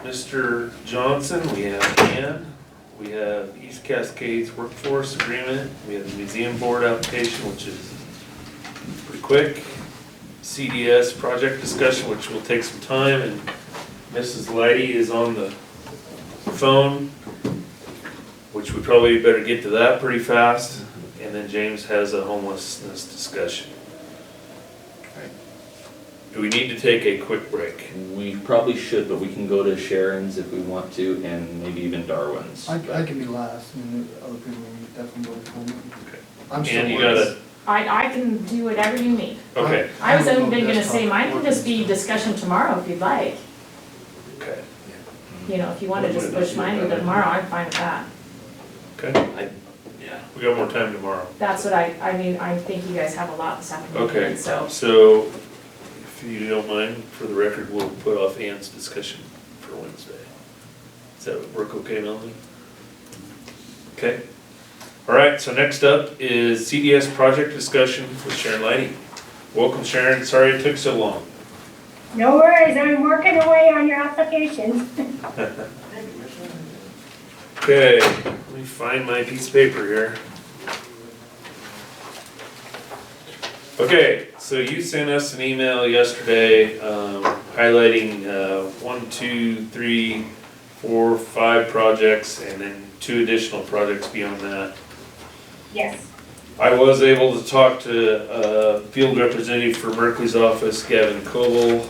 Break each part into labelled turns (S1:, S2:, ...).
S1: Mr. Johnson, we have Ann, we have East Cascades Workforce Agreement, we have the Museum Board application, which is pretty quick. CDS project discussion, which will take some time, and Mrs. Lighty is on the phone, which we probably better get to that pretty fast, and then James has a homelessness discussion. Do we need to take a quick break?
S2: We probably should, but we can go to Sharon's if we want to, and maybe even Darwin's.
S3: I, I can be last, and the other people can definitely vote for me.
S1: Okay.
S3: I'm still.
S1: And you gotta,
S4: I, I can do whatever you need.
S3: Uh-huh.
S1: okay,
S4: I was even gonna say, mine can just be discussion tomorrow if you'd like.
S1: okay,
S4: You know, if you wanna just push mine into tomorrow, I'm fine with that.
S1: okay.
S2: I- yeah.
S1: We got more time tomorrow.
S4: That's what I, I mean, I think you guys have a lot this afternoon.
S1: Okay,
S2: Oh.
S4: So,
S1: so if you don't mind, for the record, we'll put off Ann's discussion for Wednesday. Does that work okay, Melanie? Okay. All right, so next up is CDS project discussion with Sharon Lighty. Welcome, Sharon. Sorry it took so long.
S5: No worries, I'm working away on your applications.
S1: Okay, let me find my piece of paper here. Okay, so you sent us an email yesterday, um, highlighting, uh, one, two, three, four, five projects, and then two additional projects beyond that.
S5: Yes,
S1: I was able to talk to, uh, field representative for Merkley's office, Gavin Coble,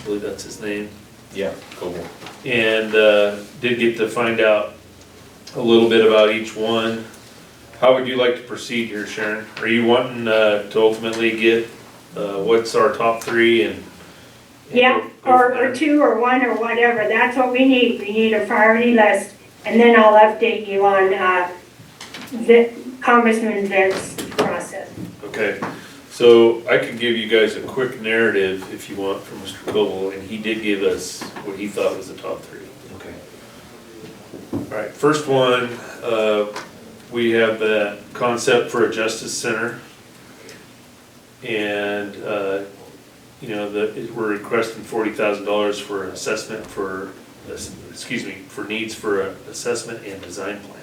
S1: I believe that's his name
S2: Yeah, cool.
S1: and uh, did get to find out a little bit about each one. How would you like to proceed here, Sharon? Are you wanting uh, to ultimately get, uh, what's our top three and? and
S5: yeah,
S1: go- go
S5: or,
S1: from there?
S5: or two, or one, or whatever, that's what we need, we need a priority list. And then I'll update you on, uh, the Congressman Vent's process.
S1: Okay, so I could give you guys a quick narrative if you want from Mr. Coble, and he did give us what he thought was the top three.
S2: Okay.
S1: All right, first one, uh, we have the concept for a justice center. And, uh, you know, the, we're requesting forty thousand dollars for assessment for, excuse me, for needs for a assessment and design plan.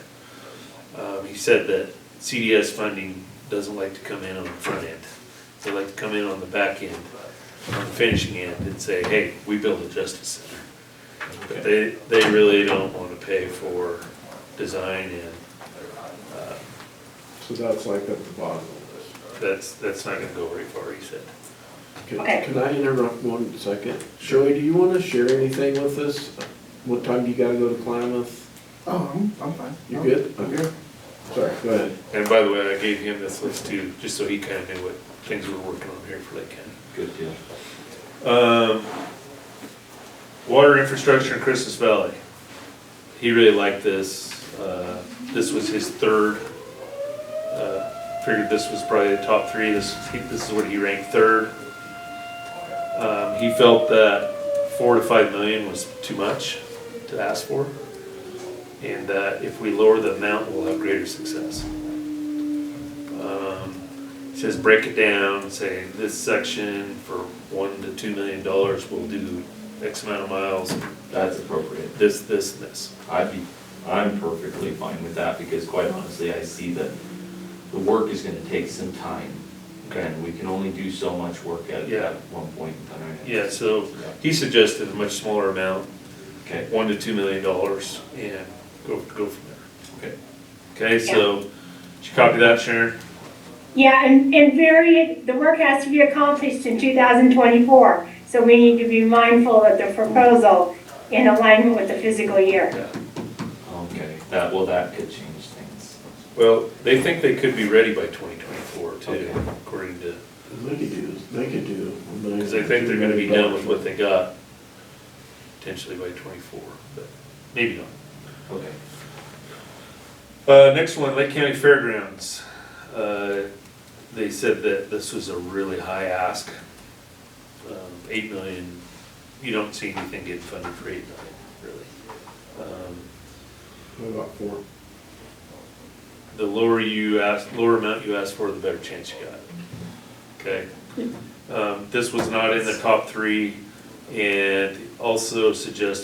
S1: Um, he said that CDS funding doesn't like to come in on the front end. They like to come in on the back end, on the finishing end and say, hey, we built a justice center. But they, they really don't wanna pay for design and, uh,
S6: So that's like at the bottom of this.
S1: that's, that's not gonna go very far, he said.
S6: Can-
S5: Okay.
S6: Can I interrupt one second? Shirley, do you want to share anything with us? What time do you gotta go to Klamath?
S3: Oh, I'm, I'm fine.
S6: You
S3: I'm-
S6: good?
S3: I'm good.
S6: Sorry, go ahead.
S1: And by the way, I gave him this list too, just so he kinda knew what things we're working on here for Lake County.
S2: Good deal.
S1: Um, water infrastructure in Christmas Valley. He really liked this, uh, this was his third. Uh, Figured this was probably the top three, this, he- this is what he ranked third. Um, he felt that four to five million was too much to ask for. And that if we lower the amount, we'll have greater success. Um, it Says break it down, say this section for one to two million dollars will do X amount of miles,
S2: That's appropriate.
S1: this, this, and this.
S2: I'd be, I'm perfectly fine with that, because quite honestly, I see that the work is gonna take some time.
S1: Okay.
S2: And we can only do so much work at,
S1: Yeah.
S2: at one point in time.
S1: Yeah, so he suggested a much smaller amount,
S2: Okay,
S1: one to two million dollars, and go, go from there.
S2: Okay.
S1: Okay, so, did you copy that, Sharon?
S5: Yeah, and, and very, the work has to be accomplished in 2024, so we need to be mindful of the proposal in alignment with the physical year.
S1: Yeah.
S2: okay, that, well, that could change things.
S1: Well, they think they could be ready by twenty twenty-four too,
S2: Okay.
S1: according to,
S6: They could do, they could do. a million-
S1: because they think they're gonna be done with what they got potentially by twenty-four, but maybe not.
S2: Okay.
S1: Uh, next one, Lake County Fairgrounds. Uh, They said that this was a really high ask. Um, Eight million, you don't see anything getting funded for eight million, really. Um,
S6: What about four?
S1: The lower you ask, lower amount you ask for, the better chance you got. Okay? Um, This was not in the top three and also suggested